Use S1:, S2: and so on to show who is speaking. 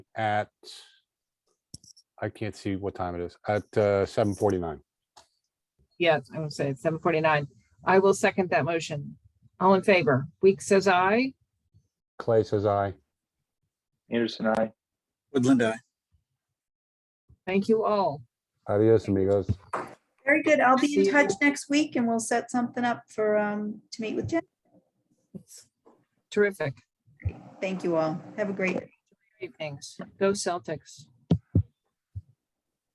S1: at, I can't see what time it is, at uh, seven forty-nine.
S2: Yes, I would say seven forty-nine. I will second that motion. All in favor? Weeks says aye.
S1: Clay says aye.
S3: Anderson, I.
S4: Woodland, I.
S2: Thank you all.
S1: Adios, amigos.
S5: Very good. I'll be
S2: See
S5: in
S2: you.
S5: touch next week and we'll set something up for, um, to meet with Jen.
S2: It's Terrific.
S5: Thank you all. Have a great.
S2: Great things. Go Celtics.